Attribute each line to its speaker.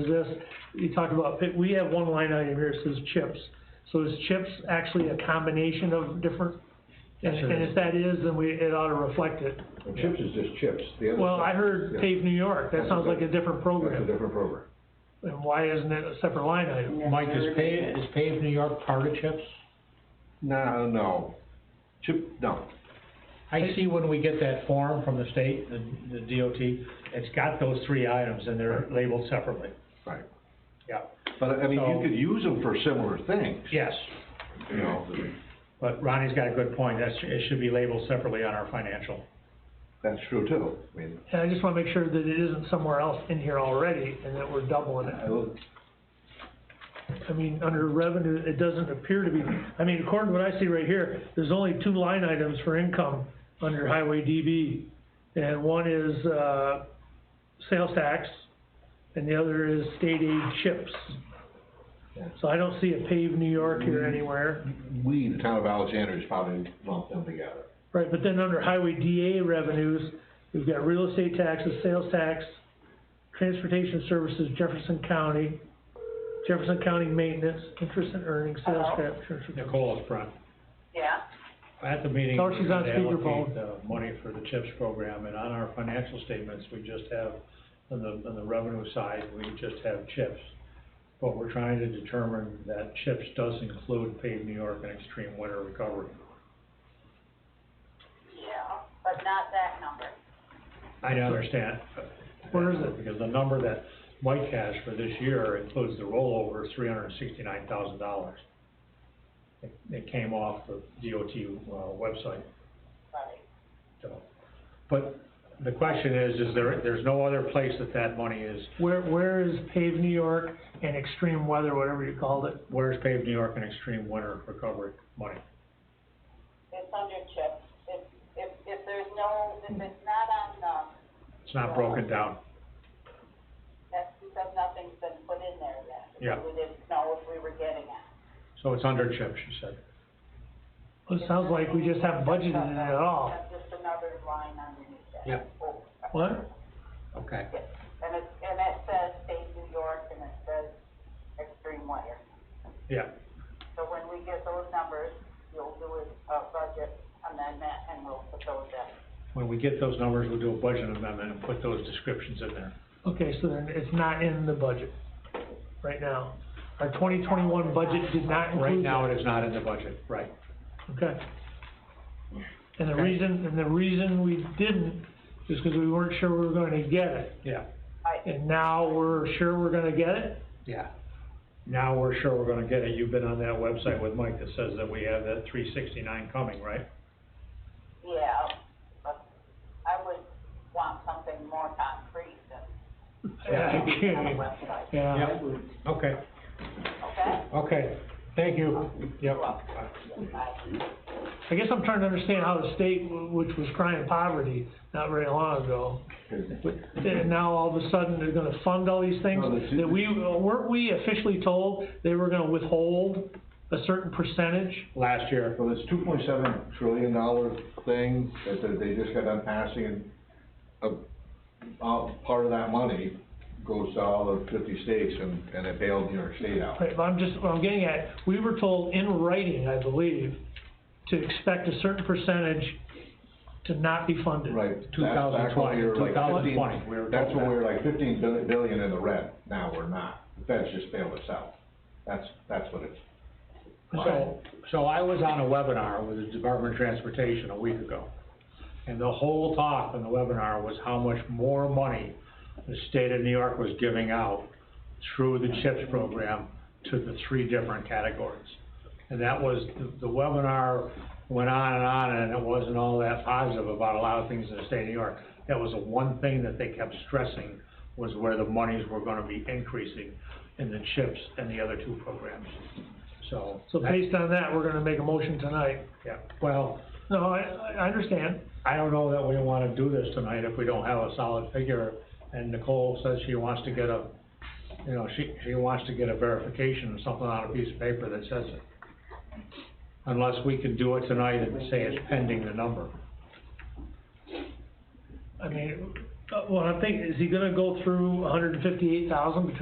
Speaker 1: is this, you talked about, pit- we have one line item here, that says chips. So is chips actually a combination of different, and,
Speaker 2: Yes, it
Speaker 1: and
Speaker 2: is.
Speaker 1: if that is, then we, it ought to reflect it.
Speaker 3: Well, Chips is just chips, the other.
Speaker 1: Well, I
Speaker 3: stuff-
Speaker 1: heard
Speaker 3: yeah,
Speaker 1: Pave New York, that sounds like a different
Speaker 3: That's a
Speaker 1: program,
Speaker 3: different program.
Speaker 1: and why isn't it a separate line item?
Speaker 2: Mike, is paved, is paved New York part of CHIPS?
Speaker 3: No, no, chip, no,
Speaker 2: I see when we get that form from the state, the, the DOT, it's got those three items and they're labeled separately.
Speaker 3: right.
Speaker 2: Yeah.
Speaker 3: But I mean,
Speaker 2: So-
Speaker 3: you could use them for similar things,
Speaker 2: Yes,
Speaker 3: you know,
Speaker 2: but Ronnie's got a good point, that's, it should be labeled separately on our financial.
Speaker 3: that's true too, I mean,
Speaker 1: And I just wanna make sure that it isn't somewhere else in here already, and that we're doubling it.
Speaker 3: I will-
Speaker 1: I mean, under revenue, it doesn't appear to be, I mean, according to what I see right here, there's only two line items for income under highway DB. And one is, uh, sales tax, and the other is state aid chips. So I don't see a paved New York here anywhere.
Speaker 3: we, the town of Alexandria, is probably lumped them together.
Speaker 1: Right, but then under highway DA revenues, we've got real estate taxes, sales tax, transportation services, Jefferson County, Jefferson County maintenance, interest and earnings, sales
Speaker 4: Hello?
Speaker 1: tax, transfer.
Speaker 2: Nicole is front.
Speaker 4: Yeah,
Speaker 2: At the meeting,
Speaker 1: Oh,
Speaker 2: we're
Speaker 1: she's on
Speaker 2: going to allocate
Speaker 1: speakerphone.
Speaker 2: the money for the CHIPS program, and on our financial statements, we just have, on the, on the revenue side, we just have CHIPS. But we're trying to determine that CHIPS does include paved New York and extreme winter recovery.
Speaker 4: yeah, but not that number.
Speaker 2: I don't understand.
Speaker 1: Where is it?
Speaker 2: Because the number that Mike has for this year includes the rollover, three hundred and sixty-nine thousand dollars. It, it came off the DOT, uh, website.
Speaker 4: Right.
Speaker 2: So, but the question is, is there, there's no other place that that money is,
Speaker 1: Where, where is paved New York and extreme weather, whatever you called it?
Speaker 2: where's paved New York and extreme winter recovery money?
Speaker 4: It's under chips. If, if, if there's no, if it's not on, um,
Speaker 2: It's not broken down.
Speaker 4: that's because nothing's been put in there yet.
Speaker 2: Yeah.
Speaker 4: We didn't know if we were getting it.
Speaker 2: So it's under chip, she said.
Speaker 1: Well, It sounds like we just haven't budgeted it at all.
Speaker 4: That's just another line underneath that.
Speaker 2: Yeah.
Speaker 4: Oh,
Speaker 1: What?
Speaker 2: Okay.
Speaker 4: yes. And it, and it says state New York and it says extreme weather.
Speaker 2: Yeah,
Speaker 4: So when we get those numbers, you'll do a, a budget amendment and we'll put those in.
Speaker 2: when we get those numbers, we'll do a budget amendment and put those descriptions in there.
Speaker 1: Okay, so then it's not in the budget right now. Our twenty twenty-one budget did not include.
Speaker 2: Right now,
Speaker 1: that.
Speaker 2: it is not in the budget, right.
Speaker 1: Okay. And the
Speaker 2: Okay.
Speaker 1: reason, and the reason we didn't is because we weren't sure we were gonna get it.
Speaker 2: Yeah,
Speaker 4: I,
Speaker 1: And now we're sure we're gonna get it?
Speaker 2: yeah. Now we're sure we're gonna get it. You've been on that website with Mike that says that we have that three sixty-nine coming, right?
Speaker 4: Yeah, but I would want something more concrete than.
Speaker 1: Yeah, I
Speaker 4: On the
Speaker 1: can't.
Speaker 4: website,
Speaker 1: Yeah.
Speaker 2: Okay,
Speaker 4: okay?
Speaker 2: okay. Thank you. Yep.
Speaker 4: Bye.
Speaker 1: I guess I'm trying to understand how the state, w- which was crying poverty not very long ago, but, and now all of a sudden they're gonna fund all these things,
Speaker 3: No, that's-
Speaker 1: that we, uh, weren't we officially told they were gonna withhold a certain percentage?
Speaker 2: Last year.
Speaker 3: So this two point seven trillion dollar thing that that they just got done passing, a, uh, part of that money goes to all the fifty states and, and it bailed New York State out.
Speaker 1: Right, but I'm just, what I'm getting at, we were told in writing, I believe, to expect a certain percentage to not be funded.
Speaker 3: Right. that's
Speaker 2: 2020,
Speaker 3: back when we were like
Speaker 2: 2020,
Speaker 3: 15
Speaker 2: we were
Speaker 3: That's
Speaker 2: told
Speaker 3: when we
Speaker 2: that.
Speaker 3: were like fifteen billion, billion in the red, now we're not, the Fed's just bailed us out, that's, that's what it's.
Speaker 2: So, so I was on a webinar with the Department of Transportation a week ago. And the whole talk on the webinar was how much more money the state of New York was giving out through the CHIPS program to the three different categories. And that was, the- the webinar went on and on and it wasn't all that positive about a lot of things in the state of New York. That was the one thing that they kept stressing was where the monies were gonna be increasing in the CHIPS and the other two programs. So.
Speaker 1: So based on that, we're gonna make a motion tonight.
Speaker 2: Yeah, well,
Speaker 1: No, I, I- I understand.
Speaker 2: I don't know that we wanna do this tonight if we don't have a solid figure, and Nicole says she wants to get a, you know, she, she wants to get a verification of something on a piece of paper that says it. Unless we can do it tonight and say it's pending the number.
Speaker 1: I mean, uh, well, I think, is he gonna go through hundred and fifty-eight thousand